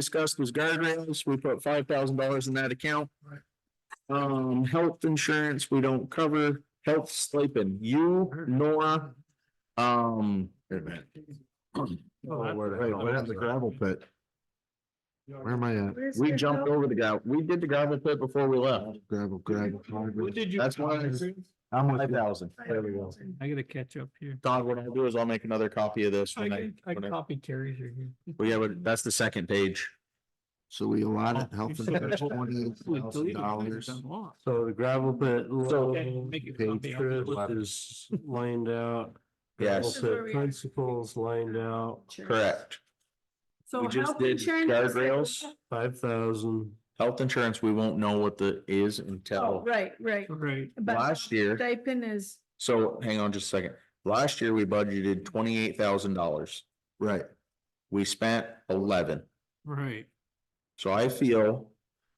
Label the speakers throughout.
Speaker 1: discussed was guardrails. We put five thousand dollars in that account. Um, health insurance, we don't cover health stipend, you, Nora. Um,
Speaker 2: Wait a minute.
Speaker 3: Oh,
Speaker 2: Oh,
Speaker 3: I-
Speaker 2: where the- Wait, what happened to the gravel pit? Where am I at?
Speaker 1: we jumped over the guy. We did the gravel pit before we left.
Speaker 2: Gravel, gravel.
Speaker 3: What
Speaker 2: gravel.
Speaker 3: did you?
Speaker 1: That's why it's-
Speaker 2: I'm with
Speaker 1: Five
Speaker 2: you.
Speaker 1: thousand.
Speaker 2: There we go.
Speaker 3: I gotta catch up here.
Speaker 1: Don, what I'll do is I'll make another copy of this
Speaker 3: I
Speaker 1: when I,
Speaker 3: can, I can
Speaker 1: when I-
Speaker 3: copy Terry's here.
Speaker 1: well, yeah, but that's the second page.
Speaker 2: So we allotted
Speaker 3: Oh,
Speaker 4: Oh.
Speaker 3: You
Speaker 2: health
Speaker 3: said
Speaker 2: and
Speaker 3: that's what-
Speaker 2: twenty
Speaker 3: Well,
Speaker 2: thousand
Speaker 3: deleted, I
Speaker 2: dollars.
Speaker 3: just unlocked.
Speaker 5: So the gravel pit.
Speaker 1: So-
Speaker 3: Okay, make it
Speaker 5: Page
Speaker 3: copy. I'll
Speaker 5: strip
Speaker 3: flip it.
Speaker 5: is lined out. gravel
Speaker 1: Yes,
Speaker 4: This is where
Speaker 5: pit
Speaker 4: we are.
Speaker 5: Principles lined out,
Speaker 1: correct.
Speaker 4: So
Speaker 1: We just
Speaker 4: health
Speaker 1: did
Speaker 4: insurance is like-
Speaker 1: guardrails.
Speaker 5: five thousand.
Speaker 1: Health insurance, we won't know what the is
Speaker 4: Oh,
Speaker 1: until
Speaker 4: right, right.
Speaker 3: Right,
Speaker 4: But
Speaker 1: last year.
Speaker 4: Stipend is,
Speaker 1: So hang on just a second. Last year, we budgeted twenty-eight thousand dollars.
Speaker 2: Right.
Speaker 1: We spent eleven.
Speaker 3: right.
Speaker 1: So I feel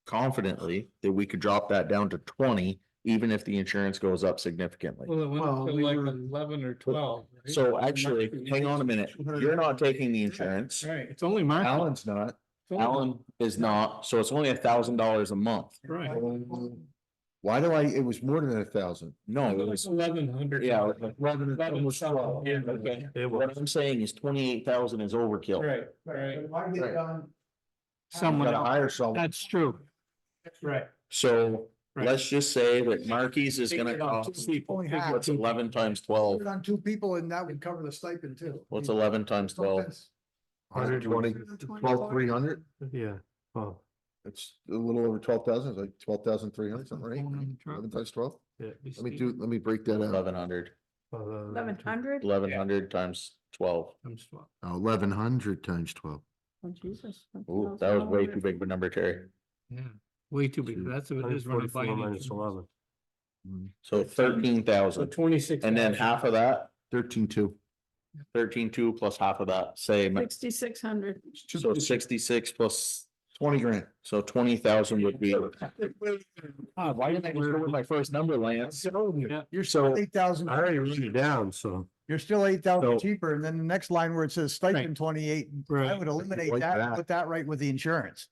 Speaker 1: confidently that we could drop that down to twenty, even if the insurance goes up significantly.
Speaker 3: Well, it went
Speaker 5: Well,
Speaker 3: up to
Speaker 5: we
Speaker 3: like
Speaker 5: were-
Speaker 3: eleven or twelve. right?
Speaker 1: So actually, hang on a minute. You're not taking the insurance.
Speaker 3: Right, it's only my. fault.
Speaker 1: Alan's not.
Speaker 3: It's only-
Speaker 1: Alan is not. So it's only a thousand dollars a month.
Speaker 3: Right.
Speaker 2: Why do I, it was more than a thousand.
Speaker 1: No, it
Speaker 3: Like
Speaker 1: was,
Speaker 3: eleven hundred.
Speaker 1: yeah, it was
Speaker 3: Eleven, almost twelve. Yeah, okay.
Speaker 5: It was
Speaker 1: what I'm saying is twenty-eight thousand is overkill.
Speaker 3: Right, right.
Speaker 2: Right.
Speaker 3: Someone
Speaker 2: Gotta
Speaker 3: else.
Speaker 2: hire someone.
Speaker 3: That's true. Right.
Speaker 1: So
Speaker 3: Right.
Speaker 1: let's just say that Marquis is gonna cost, what's eleven times twelve?
Speaker 6: on two people and that would cover the stipend too.
Speaker 1: What's eleven times twelve?
Speaker 2: Hundred twenty, twelve, three hundred.
Speaker 5: yeah, well,
Speaker 2: It's a little over twelve thousand, it's like twelve thousand three hundred, something, right?
Speaker 3: Aluminum truck.
Speaker 2: Eleven times twelve?
Speaker 5: yeah.
Speaker 2: Let me do, let me break that out.
Speaker 1: Eleven hundred. Uh,
Speaker 4: eleven hundred?
Speaker 1: Eleven hundred times twelve.
Speaker 2: Eleven hundred times twelve.
Speaker 4: Oh, Jesus. that's
Speaker 1: Ooh,
Speaker 4: also
Speaker 1: that was way
Speaker 4: another-
Speaker 1: too big of a number, Terry.
Speaker 3: Yeah, way too big. That's what it is running by.
Speaker 5: Minus eleven.
Speaker 1: So thirteen
Speaker 3: So
Speaker 1: thousand.
Speaker 3: twenty-six.
Speaker 1: And then half of that,
Speaker 2: Thirteen two.
Speaker 1: thirteen two plus half of that, say, ma-
Speaker 4: Sixty-six hundred.
Speaker 1: so sixty-six plus,
Speaker 2: Twenty grand.
Speaker 1: so twenty thousand would be. Ah, Why didn't
Speaker 3: I just go with
Speaker 1: my first number, Lance? You're so.
Speaker 6: Eight thousand,
Speaker 5: I already wrote it down, so.
Speaker 6: you're still eight
Speaker 1: So-
Speaker 6: thousand cheaper. And then the next line where it says
Speaker 3: Right.
Speaker 6: stipend twenty-eight, I
Speaker 3: Right.
Speaker 6: would eliminate
Speaker 2: Like
Speaker 6: that,
Speaker 2: that.
Speaker 6: and put that right with the insurance.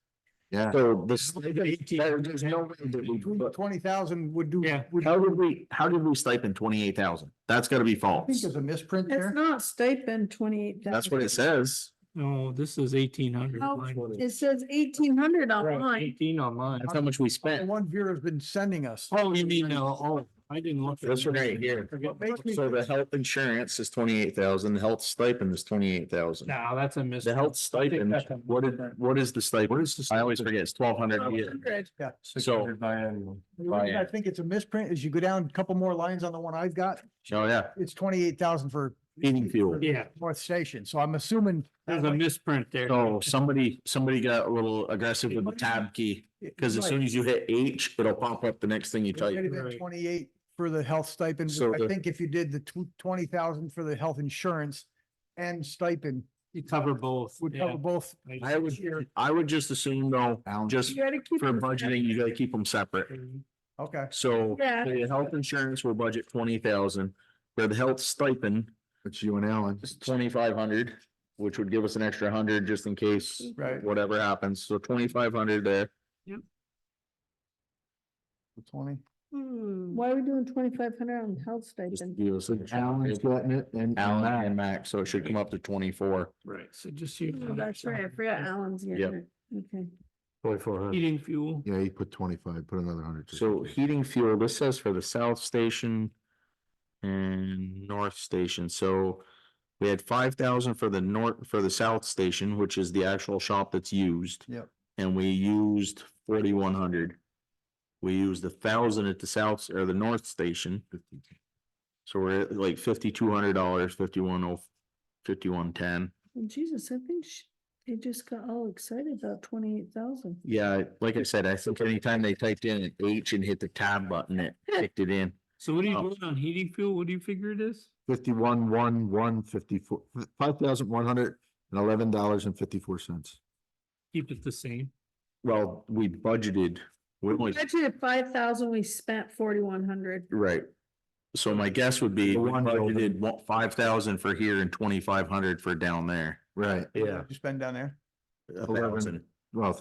Speaker 2: Yeah.
Speaker 1: So this.
Speaker 3: Eighteen.
Speaker 1: There's no way that we put-
Speaker 6: Twenty thousand would do.
Speaker 3: Yeah.
Speaker 6: would-
Speaker 1: How did we, how did we stipend twenty-eight thousand? That's gotta be
Speaker 6: I think
Speaker 1: false.
Speaker 6: there's a misprint
Speaker 4: It's
Speaker 6: there.
Speaker 4: not stipend twenty-eight.
Speaker 1: That's what it says.
Speaker 3: No, this is eighteen hundred.
Speaker 4: No, It says eighteen hundred online.
Speaker 3: Eighteen on mine.
Speaker 1: That's how much we
Speaker 6: The
Speaker 1: spent.
Speaker 6: one Vera's been sending us.
Speaker 3: Oh, you mean, uh, oh, I didn't look. at
Speaker 1: This one
Speaker 3: mine.
Speaker 1: right here.
Speaker 3: Forget-
Speaker 6: Makes me
Speaker 1: So the
Speaker 6: think-
Speaker 1: health insurance is twenty-eight thousand, the health stipend is twenty-eight thousand.
Speaker 3: No, that's a miss.
Speaker 1: The health stipend,
Speaker 3: that's a-
Speaker 1: what is, what is the stipend? I always forget, it's twelve hundred a year.
Speaker 4: 1,200.
Speaker 1: So,
Speaker 5: 600 biannual.
Speaker 6: The reason I
Speaker 1: Brian.
Speaker 6: think it's a misprint is you go down a couple more lines on the one I've got,
Speaker 1: oh yeah,
Speaker 6: it's twenty-eight thousand for
Speaker 1: heating fuel.
Speaker 3: Yeah,
Speaker 6: North Station. So I'm assuming.
Speaker 3: there's a misprint there.
Speaker 1: So somebody, somebody got a little aggressive with the tab key, because as soon as you hit H, it'll pop up the next thing you
Speaker 6: It might
Speaker 1: type.
Speaker 6: have been
Speaker 3: Right.
Speaker 6: twenty-eight for the health stipend.
Speaker 1: So
Speaker 6: I
Speaker 1: the-
Speaker 6: think if you did the tw- twenty thousand for the health insurance and stipend
Speaker 3: You cover both.
Speaker 6: would cover
Speaker 3: yeah.
Speaker 6: both.
Speaker 1: I would, I would just assume though, just
Speaker 4: You gotta keep.
Speaker 1: for
Speaker 4: it
Speaker 1: budgeting, you gotta keep them separate.
Speaker 6: Okay.
Speaker 1: So
Speaker 4: Yeah.
Speaker 1: for the health insurance, we'll budget twenty thousand. For the health stipend,
Speaker 2: It's you and Alan.
Speaker 1: it's twenty-five hundred, which would give us an extra hundred just in case
Speaker 6: Right.
Speaker 1: whatever happens. So twenty-five hundred there.
Speaker 6: Twenty.
Speaker 4: separate. Why are we doing twenty-five hundred on health
Speaker 1: Hmm. just to
Speaker 4: stipend?
Speaker 1: give us an-
Speaker 2: Alan's gotten it and.
Speaker 1: Alan and Max, so it should come up to twenty-four.
Speaker 3: Right, so just. so you
Speaker 4: Oh,
Speaker 3: know,
Speaker 4: That's right, I forgot Alan's. getting
Speaker 1: Yep.
Speaker 4: it. Okay.
Speaker 5: Twenty-four hundred.
Speaker 3: Heating fuel.
Speaker 2: Yeah, he put twenty-five, put another hundred.
Speaker 1: So heating fuel, this says for the south station and north station, so we had five thousand for the north, for the south station, which is the actual shop that's used.
Speaker 6: Yep.
Speaker 1: And we used forty-one hundred. We used a thousand at the south or the north station, so we're at like fifty-two hundred dollars, fifty-one oh, fifty-one ten.
Speaker 4: Well, Jesus, I think sh- they just got all excited about twenty-eight thousand.
Speaker 1: Yeah, like I said, I think anytime they typed in an H and hit the tab button, it kicked it in.
Speaker 3: So what do you
Speaker 1: Oh.
Speaker 3: vote on heating fuel? What do you figure it is?
Speaker 2: Fifty-one, one, one, fifty-four, five thousand one hundred and eleven dollars and fifty-four cents.
Speaker 3: Keep it the same.
Speaker 1: Well, we budgeted, we only,
Speaker 4: Budgeted five thousand, we spent forty-one hundred.
Speaker 1: right. So my guess would be
Speaker 2: The
Speaker 1: we
Speaker 2: one building.
Speaker 1: budgeted five thousand for here and twenty-five hundred for down there.
Speaker 2: Right.
Speaker 6: You spend down there.
Speaker 1: A
Speaker 2: Eleven.
Speaker 1: thousand.
Speaker 2: well,